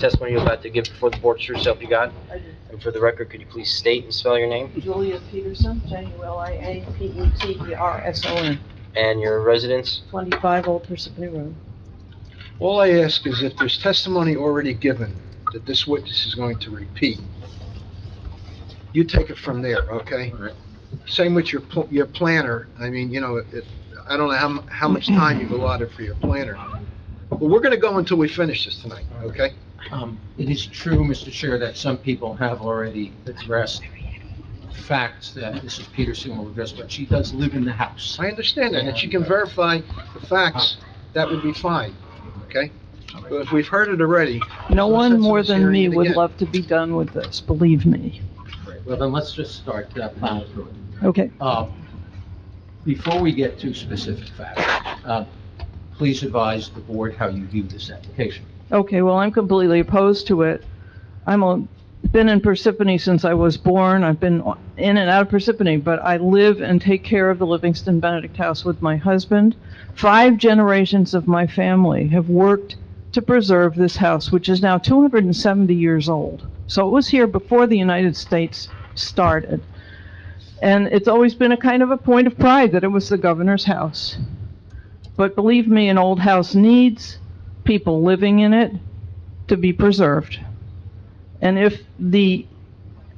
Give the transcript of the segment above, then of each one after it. testimony you're about to give before the board true self you got? I do. And for the record, could you please state and spell your name Julia Peterson, E J-U-L-I-A-P-E-T-E-R-S-O-N, and your residence? 25 Old Parsippany Road. All I ask is if there's testimony already given that this witness is going to repeat, you take it from there, okay? Alright. Same with your, pl- your planner, I mean, you know, it, I don't know how, mu- how much time you've allotted for your planner. But we're gonna go until we finish this tonight, okay? Um, It is true, Mr. Chair, that some people have already addressed facts that Mrs. Peterson will address, but she does live in the house. I understand that, and if you can verify the facts, that would be fine, okay? But if we've heard it already, No Let's one have more some than me serious would again. love to be done with this, believe me. Well, then let's just start uh, plowing through it. Okay, Uh, Before we get to specific facts, uh, please advise the board how you view this application. okay, well, I'm completely opposed to it. I'm a, been in Parsippany since I was born, I've been in and out of Parsippany, but I live and take care of the Livingston Benedict House with my husband. Five generations of my family have worked to preserve this house, which is now 270 years old. So it was here before the United States started. And it's always been a kind of a point of pride that it was the governor's house. But believe me, an old house needs people living in it to be preserved. And if the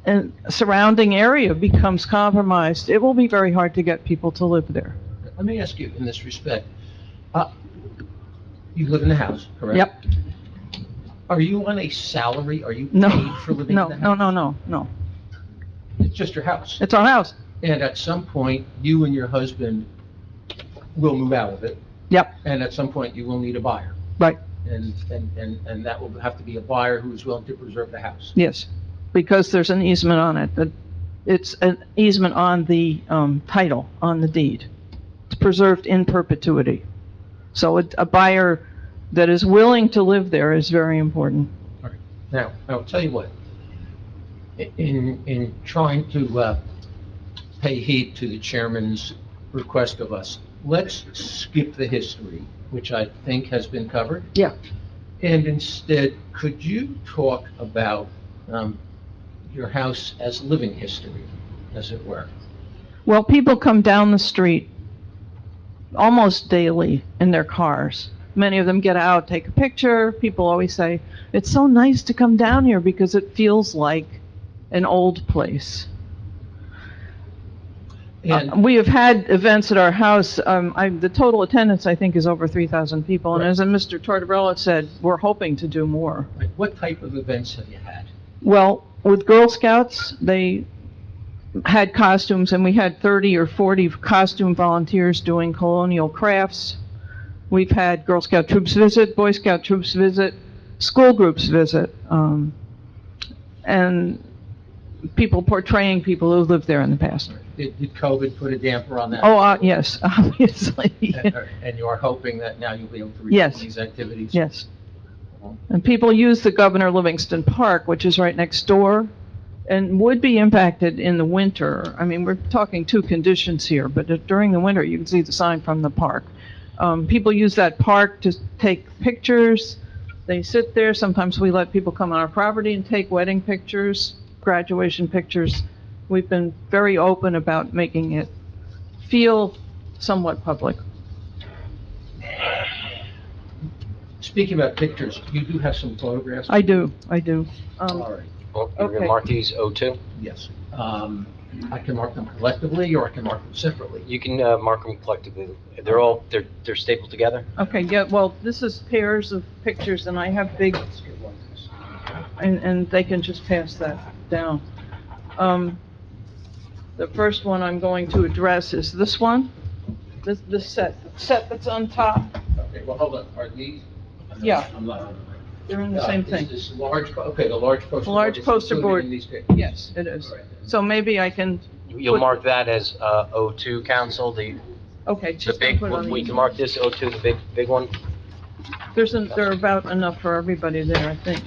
uh, surrounding area becomes compromised, it will be very hard to get people to live there. Let me ask you in this respect, uh, you live in the house, correct? Yep. Are you on a salary? Are you No, paid for living no, in the no, house? no, no, no. It's just your house. It's our house. And at some point, you and your husband will move out of it, Yep, and at some point, you will need a buyer. right, And, and, and, and that will have to be a buyer who is willing to preserve the house. yes. Because there's an easement on it, that, it's an easement on the, um, title, on the deed. It's preserved in perpetuity. So a, a buyer that is willing to live there is very important. Now, I'll tell you what, i- in, in trying to, uh, pay heed to the chairman's request of us, let's skip the history, which I think has been covered. Yeah. And instead, could you talk about, um, your house as living history, as it were? Well, people come down the street almost daily in their cars. Many of them get out, take a picture. People always say, it's so nice to come down here because it feels like an old place. And Uh, we have had events at our house. Um, I, the total attendance, I think, is over 3,000 people. And Right. as uh, Mr. Tortorella said, we're hoping to do more. Like, What type of events have you had? Well, with Girl Scouts, they had costumes, and we had 30 or 40 costume volunteers doing colonial crafts. We've had Girl Scout troops visit, Boy Scout troops visit, school groups visit, um, and people portraying people who lived there in the past. Did did COVID put a damper on that? Oh, uh, yes, obviously, And uh, and you are hoping that now you'll be able to resume Yes. these activities? yes. And people use the Governor Livingston Park, which is right next door, and would be impacted in the winter. I mean, we're talking two conditions here, but during the winter, you can see the sign from the park. Um, people use that park to take pictures. They sit there. Sometimes we let people come on our property and take wedding pictures, graduation pictures. We've been very open about making it feel somewhat public. Speaking about pictures, you do have some photographs? I do, I do. Um, All right, Well, You're going Okay. to mark these O2? yes. Um, I can mark them collectively, or I can mark them separately. You can uh, mark them collectively. They're all, they're they're stapled together? Okay, yeah, well, this is pairs of pictures, and I have big, Let's get one of these. and, and they can just pass that down. Um, The first one I'm going to address is this one, this, this set, the set that's on top, Okay, well, hold on, are these? Yeah. I'm not- they're in the Uh, same is thing. This large, po- okay, the large poster board. Large is poster included board. in these pictures. Yes, it is. All right. So maybe I can, You'll Put- mark that as uh, O2, council, the okay, the just gonna big, put it on we can the, mark this O2, the big, big one? there's, an- there are about enough for everybody there, I think.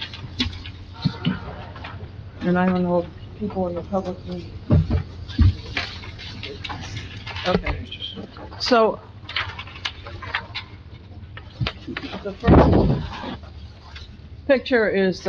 And I don't know if people in the public need. Okay. So, the first picture is